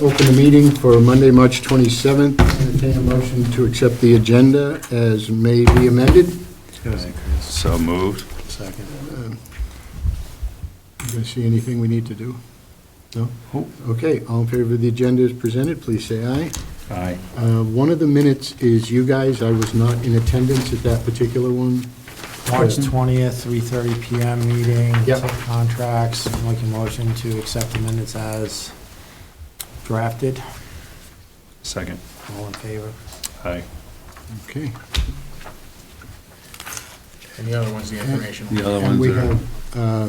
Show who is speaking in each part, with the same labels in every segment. Speaker 1: Open the meeting for Monday, March 27th. Entertain a motion to accept the agenda as may be amended.
Speaker 2: So moved.
Speaker 1: You guys see anything we need to do? No?
Speaker 2: Nope.
Speaker 1: Okay, all in favor of the agenda as presented, please say aye.
Speaker 2: Aye.
Speaker 1: Uh, One of the minutes is you guys, I was not in attendance at that particular one.
Speaker 3: March 20th, 3:30 PM meeting.
Speaker 1: Yep.
Speaker 3: Take Contracts, I'm making motion to accept the minutes as drafted.
Speaker 2: Second.
Speaker 3: All in favor?
Speaker 2: Aye.
Speaker 1: Okay.
Speaker 4: And the other one's the informational.
Speaker 2: The other
Speaker 1: And
Speaker 2: ones
Speaker 1: we
Speaker 2: are,
Speaker 1: have uh,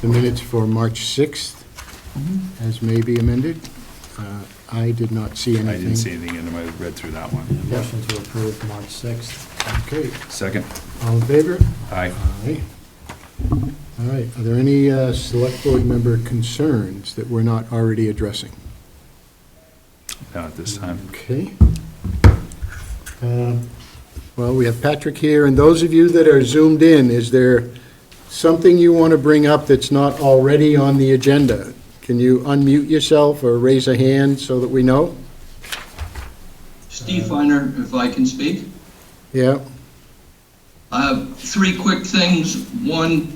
Speaker 1: the minutes for March 6th as may be amended. Uh, I did not see anything.
Speaker 2: Mm-hmm. I didn't see anything in them, I read through that one.
Speaker 3: Motion to approve March 6th.
Speaker 1: Okay,
Speaker 2: Second.
Speaker 1: all in favor?
Speaker 2: Aye.
Speaker 1: Aye. All right, are there any uh, Select Board member concerns that we're not already addressing?
Speaker 2: Not at this time.
Speaker 1: Okay. Uh, Well, we have Patrick here, and those of you that are zoomed in, is there something you want to bring up that's not already on the agenda? Can you unmute yourself or raise a hand so that we know?
Speaker 5: Steve Feiner, if I can speak.
Speaker 1: Yeah,
Speaker 5: Uh, Three quick things. One,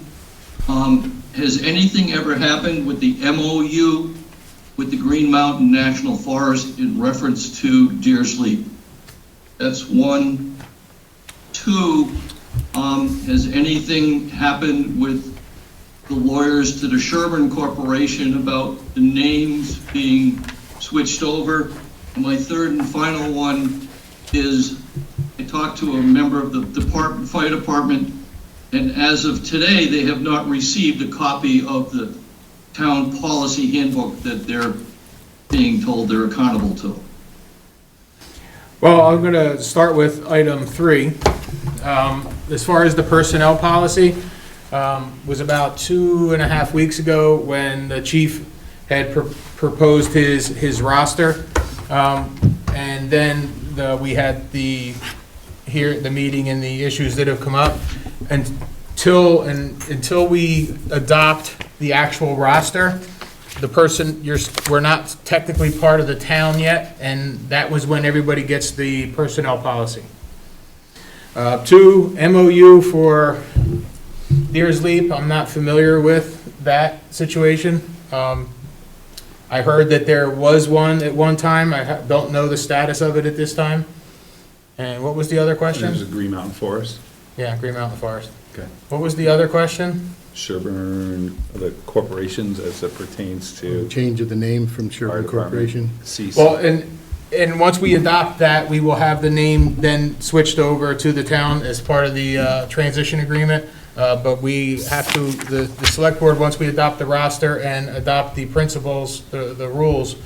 Speaker 5: um, has anything ever happened with the MOU with the Green Mountain National Forest in reference to deer sleep? That's one. Two, um, has anything happened with the lawyers to the Sherburne Corporation about the names being switched over? And My third and final one is, I talked to a member of the department, fire department, and as of today, they have not received a copy of the town policy handbook that they're being told they're accountable to.
Speaker 4: Well, I'm going to start with item three. Um, As far as the personnel policy, um, was about two and a half weeks ago when the chief had pr- proposed his, his roster. Um, And then the- we had the, here, the meeting and the issues that have come up. Until, and until we adopt the actual roster, the person, you're, we're not technically part of the town yet, and that was when everybody gets the personnel policy. Uh, Two, MOU for Deer's Leap, I'm not familiar with that situation. Um, I heard that there was one at one time, I ha- don't know the status of it at this time. And what was the other
Speaker 2: There's a
Speaker 4: question?
Speaker 2: Green Mountain Forest.
Speaker 4: Yeah, Green Mountain Forest.
Speaker 2: Okay.
Speaker 4: What was the other question?
Speaker 2: Sherburne, the corporations as it pertains to
Speaker 1: change of the name from
Speaker 2: our
Speaker 1: Sherburne Corporation.
Speaker 2: department. Cease.
Speaker 4: Well, and, and once we adopt that, we will have the name then switched over to the town as part of the uh, transition agreement. Uh, But we have to, the, the select board, once we adopt the roster and adopt the principles, the, the rules,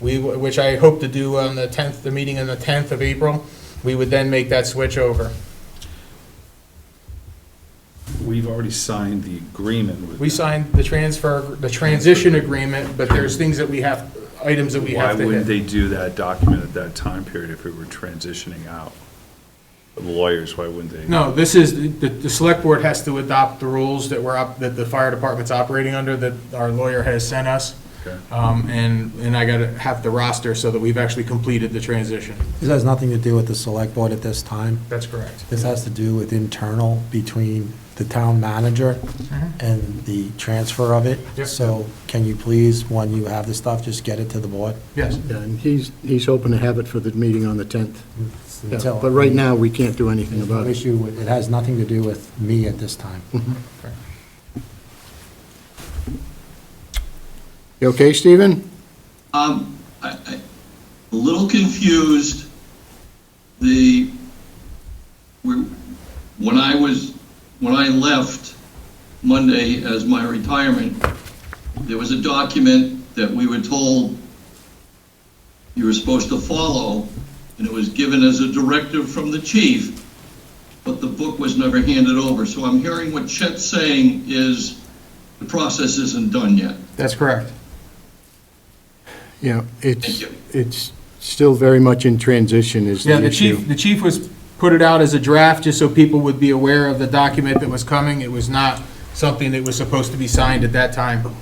Speaker 4: we, w- which I hope to do on the 10th, the meeting on the 10th of April, we would then make that switch over.
Speaker 2: We've already signed the agreement with.
Speaker 4: We
Speaker 2: them.
Speaker 4: signed the transfer, the transition agreement, but there's things that we have, items that we
Speaker 2: Why
Speaker 4: have to
Speaker 2: wouldn't they
Speaker 4: hit.
Speaker 2: do that document at that time period if we were transitioning out? The lawyers, why wouldn't they?
Speaker 4: No, this is, the, the select board has to adopt the rules that we're up, that the fire department's operating under, that our lawyer has sent us.
Speaker 2: Okay.
Speaker 4: Um, and, and I gotta have the roster so that we've actually completed the transition.
Speaker 3: This has nothing to do with the select board at this time.
Speaker 4: That's correct.
Speaker 3: This has to do with internal between the town manager and the transfer of it.
Speaker 4: Mm-hmm. Yep.
Speaker 3: So can you please, when you have the stuff, just get it to the board?
Speaker 4: Yes.
Speaker 1: Yeah, And he's, he's hoping to have it for the meeting on the 10th. Yeah,
Speaker 3: Until-
Speaker 1: But right now, we can't do anything
Speaker 3: There's no
Speaker 1: about it.
Speaker 3: issue, with- it has nothing to do with me at this time.
Speaker 1: You okay, Stephen?
Speaker 5: Um, I, I, a little confused, the, we- when I was, when I left Monday as my retirement, there was a document that we were told you were supposed to follow, and it was given as a directive from the chief, but the book was never handed over. So I'm hearing what Chet's saying is the process isn't done yet.
Speaker 4: That's correct.
Speaker 1: Yeah,
Speaker 5: Thank
Speaker 1: it's,
Speaker 5: you.
Speaker 1: it's still very much in transition is the
Speaker 4: Yeah,
Speaker 1: issue.
Speaker 4: the chief, the chief was, put it out as a draft just so people would be aware of the document that was coming. It was not something that was supposed to be signed at that time.